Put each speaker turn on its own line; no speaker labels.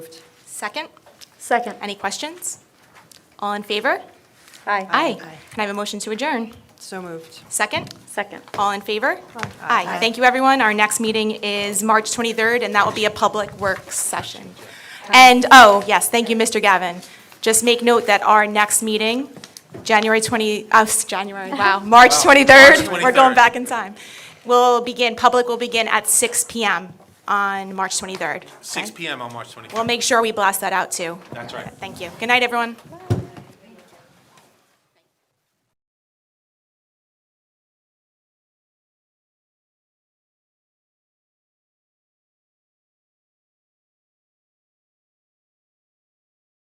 Second,
Second.
any questions? All in favor?
Aye.
Can I have a motion to adjourn?
So moved.
Second,
Second.
all in favor? Aye. Thank you, everyone. Our next meeting is March 23rd, and that will be a public works session. And, oh, yes, thank you, Mr. Gavin. Just make note that our next meeting, January 20, uh, s- January, wow, March 23rd, we're going
23rd.
back in time, will begin, public will begin at 6 PM on March 23rd.
Six
okay?
PM on March 23rd.
We'll make sure we blast that out, too.
That's right.
Thank you. Good night, everyone.